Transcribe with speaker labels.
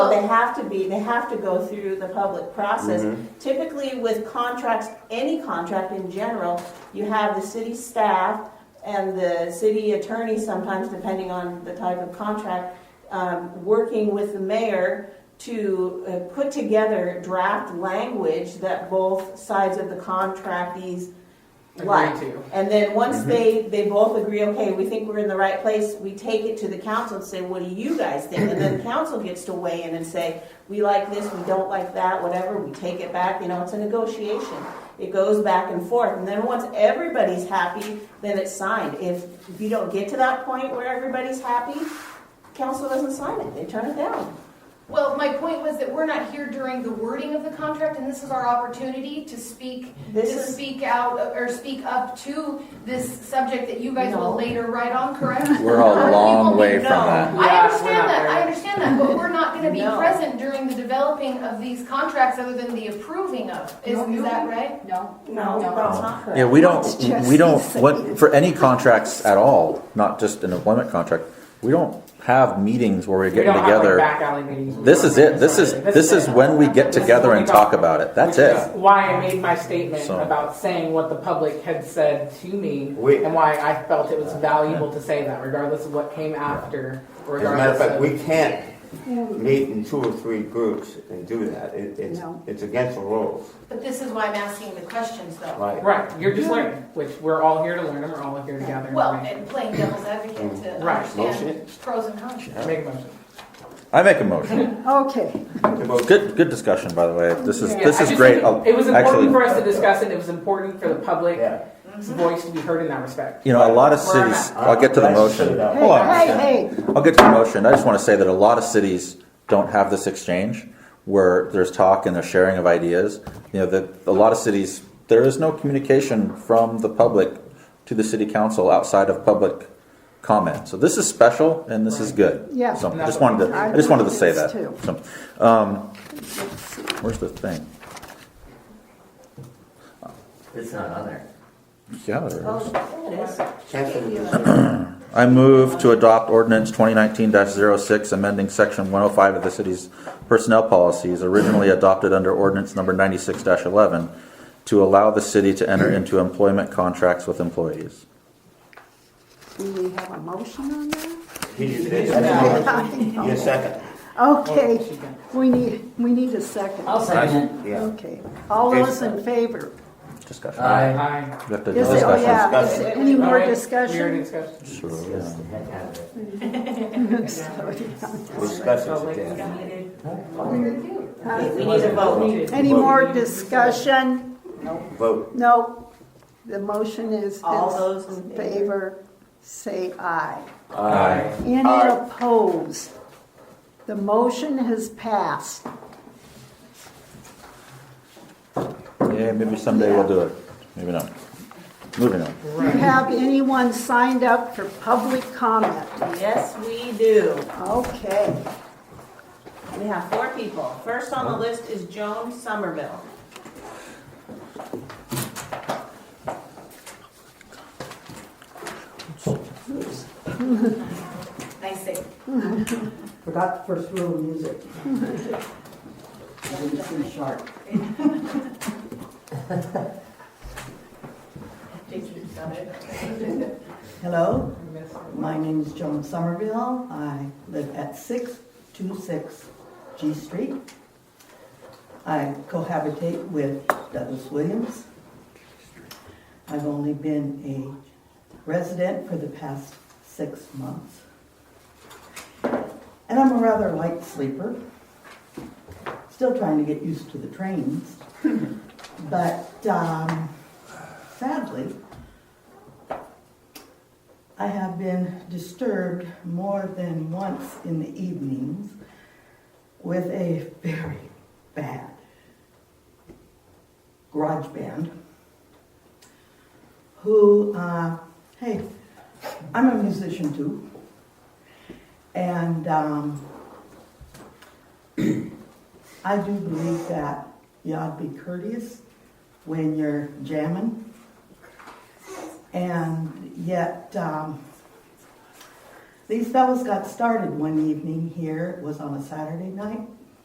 Speaker 1: they have to be, they have to go through the public process.
Speaker 2: Mhm.
Speaker 3: Mm-hmm.
Speaker 1: Typically with contracts, any contract in general, you have the city staff and the city attorney sometimes, depending on the type of contract, um, working with the mayor to uh, put together draft language that both sides of the contractees like.
Speaker 3: Agree to.
Speaker 1: And then
Speaker 2: Mm-hmm.
Speaker 1: once they, they both agree, okay, we think we're in the right place, we take it to the council and say, what do you guys think? And then the council gets to weigh in and say, we like this, we don't like that, whatever, we take it back, you know, it's a negotiation. It goes back and forth, and then once everybody's happy, then it's signed. If, if you don't get to that point where everybody's happy, council doesn't sign it, they turn it down.
Speaker 4: Well, my point was that we're not here during the wording of the contract, and this is our opportunity to speak, to
Speaker 1: This is,
Speaker 4: speak out, or speak up to this subject that you guys
Speaker 1: No.
Speaker 4: will later write on, correct?
Speaker 2: We're all
Speaker 4: Other
Speaker 2: a
Speaker 4: people
Speaker 2: long
Speaker 4: may
Speaker 2: way from
Speaker 1: know.
Speaker 2: that.
Speaker 4: I
Speaker 3: Yeah, we're not
Speaker 4: understand that, I
Speaker 3: there.
Speaker 4: understand that, but we're not gonna be
Speaker 1: No.
Speaker 4: present during the developing of these contracts other than the approving of, is,
Speaker 5: No,
Speaker 4: is
Speaker 5: you-
Speaker 4: that right?
Speaker 5: No.
Speaker 1: no, that's not correct.
Speaker 2: Yeah, we don't,
Speaker 5: It's just
Speaker 2: we don't,
Speaker 5: insane.
Speaker 2: what, for any contracts at all, not just an employment contract, we don't have meetings where we're
Speaker 3: We
Speaker 2: getting
Speaker 3: don't have, like,
Speaker 2: together.
Speaker 3: back alley meetings.
Speaker 2: This is it, this is,
Speaker 3: This
Speaker 2: this is
Speaker 3: it.
Speaker 2: when we get
Speaker 3: This is
Speaker 2: together
Speaker 3: what
Speaker 2: and
Speaker 3: we
Speaker 2: talk about it, that's
Speaker 3: Which
Speaker 2: it.
Speaker 3: is Why I made my statement
Speaker 2: So-
Speaker 3: about saying what the public had said to me,
Speaker 6: We-
Speaker 3: and why I felt it was valuable to say that, regardless of what came after.
Speaker 6: As a matter of
Speaker 3: Regardless
Speaker 6: fact,
Speaker 3: of,
Speaker 6: we can't meet in two or three groups and do that. It, it's,
Speaker 5: No.
Speaker 6: it's against the rules,
Speaker 4: But this is why I'm asking the questions though.
Speaker 6: right?
Speaker 3: right? You're just learning, which we're all here to learn, and we're all here together.
Speaker 4: Well, and playing devil's advocate to
Speaker 3: Right.
Speaker 6: Motion.
Speaker 4: understand pros and cons.
Speaker 3: make a motion.
Speaker 2: I make a motion.
Speaker 5: Okay,
Speaker 2: Good, good discussion, by the way. This is,
Speaker 3: Yeah,
Speaker 2: this
Speaker 3: I
Speaker 2: is
Speaker 3: just
Speaker 2: great.
Speaker 3: think It it was
Speaker 2: I'll- actually-
Speaker 3: important for us to discuss it. It was important for the public's
Speaker 6: Yeah.
Speaker 3: voice to be heard in that respect.
Speaker 2: You know, a lot of
Speaker 3: Where I'm
Speaker 2: cities,
Speaker 3: at.
Speaker 2: I'll get to the
Speaker 6: Let's
Speaker 2: motion.
Speaker 6: sit it out.
Speaker 5: hey,
Speaker 2: Hold on. a second.
Speaker 5: hey, hey,
Speaker 2: I'll get to the motion. I just want to say that a lot of cities don't have this exchange where there's talk and there's sharing of ideas. You know, that a lot of cities there is no communication from the public to the city council outside of public comment. So this is special and this is good.
Speaker 5: Yeah.
Speaker 2: So I just wanted to I just wanted to say that. So, um, where's the thing?
Speaker 7: It's not on there.
Speaker 2: Yeah, there it is.
Speaker 1: Oh, it is.
Speaker 6: Cancel the
Speaker 2: I move to adopt ordinance 2019-06, amending section 105 of the city's personnel policies originally adopted under ordinance number 96-11 to allow the city to enter into employment contracts with employees.
Speaker 5: do we have a motion on that?
Speaker 6: He just did it. Your second.
Speaker 3: Well,
Speaker 5: Okay,
Speaker 3: she can-
Speaker 5: we need, we need a second.
Speaker 7: I'll second
Speaker 6: Yeah.
Speaker 5: Okay, all those in favor?
Speaker 7: it.
Speaker 2: Discussion.
Speaker 7: Aye.
Speaker 3: Aye.
Speaker 2: We have to do
Speaker 5: Is it, oh
Speaker 2: discussion.
Speaker 5: yeah, is it any more
Speaker 3: Alright, We already
Speaker 5: discussion?
Speaker 3: discussed.
Speaker 7: Let's get the heck out of it.
Speaker 6: Discuss it again.
Speaker 1: We need a vote.
Speaker 5: Any more discussion?
Speaker 6: Vote.
Speaker 5: No, the motion is,
Speaker 1: All
Speaker 5: is
Speaker 1: those in
Speaker 5: in
Speaker 1: favor?
Speaker 5: favor, say aye.
Speaker 6: Uh,
Speaker 7: Aye.
Speaker 5: Any
Speaker 6: Aye.
Speaker 5: opposed? The motion has passed.
Speaker 2: Yeah, maybe someday we'll do it. Maybe not. Moving on.
Speaker 5: Do you have anyone signed up for public comment?
Speaker 1: Yes, we do.
Speaker 5: Okay.
Speaker 1: We have four people. First on the list is Joan Somerville.
Speaker 4: Nice thing.
Speaker 8: Forgot the first rule of music. I didn't seem sharp.
Speaker 4: JT, got it.
Speaker 8: Hello, my name is Joan Somerville. I live at 626 G Street. I cohabitate with Douglas Williams. I've only been a resident for the past six months. And I'm a rather light sleeper. Still trying to get used to the trains. But um, sadly, I have been disturbed more than once in the evenings with a very bad garage band who, uh, hey, I'm a musician too. And um, I do believe that you ought to be courteous when you're jamming. And yet, um, these fellows got started one evening here, it was on a Saturday night,